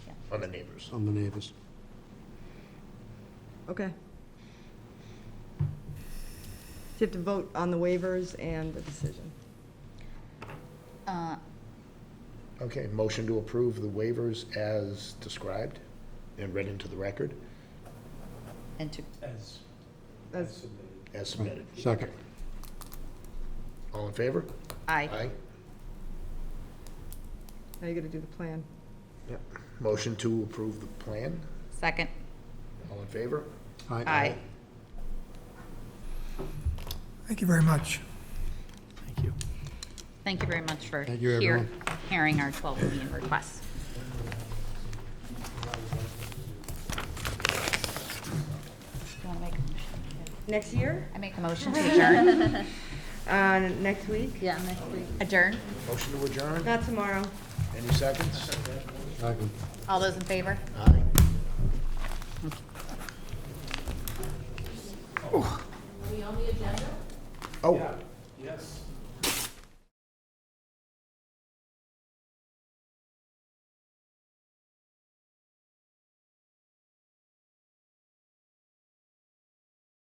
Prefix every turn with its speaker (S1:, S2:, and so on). S1: on the neighbors.
S2: on the neighbors.
S3: Okay. Do you have to vote on the waivers and the decision?
S4: Uh,
S1: Okay, motion to approve the waivers as described and read into the record
S4: And to,
S5: As, as
S3: That's,
S5: submitted.
S1: as submitted.
S2: Second.
S1: All in favor?
S4: aye.
S3: now you got to do the plan.
S1: Motion to approve the plan.
S4: Second,
S1: All in favor?
S2: Aye.
S4: aye.
S6: Thank you very much. Thank you.
S4: Thank you very much for
S2: Thank you,
S4: hear-
S2: everyone.
S4: hearing our 12 million requests. Do you want to make a motion?
S3: Next year?
S4: I make a motion to adjourn.
S3: Uh, next week?
S4: Yeah, next week. Adjourn?
S1: Motion to adjourn.
S3: Not tomorrow.
S1: Any seconds?
S2: Second.
S4: All those in favor?
S1: Aye. Oh. Are we on the agenda? Oh. Yes.